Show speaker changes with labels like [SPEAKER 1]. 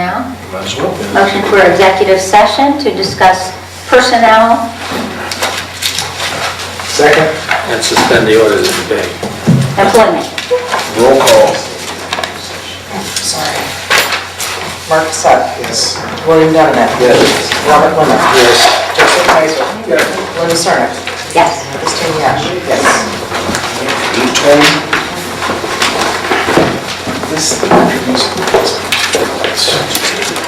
[SPEAKER 1] Now,
[SPEAKER 2] Might as well.
[SPEAKER 1] motion for executive session to discuss personnel.
[SPEAKER 2] Second.
[SPEAKER 3] and suspend the orders of the day.
[SPEAKER 1] Employment.
[SPEAKER 2] Roll call.
[SPEAKER 4] Sorry. Mark Sutton.
[SPEAKER 2] Yes.
[SPEAKER 4] William Donovan.
[SPEAKER 2] Yes.
[SPEAKER 4] Robert Lemon.
[SPEAKER 2] Yes.
[SPEAKER 4] Joseph Kaiser. Linda Sarno.
[SPEAKER 1] Yes.
[SPEAKER 4] Christine Yash. Yes.
[SPEAKER 2] Eight twenty. This.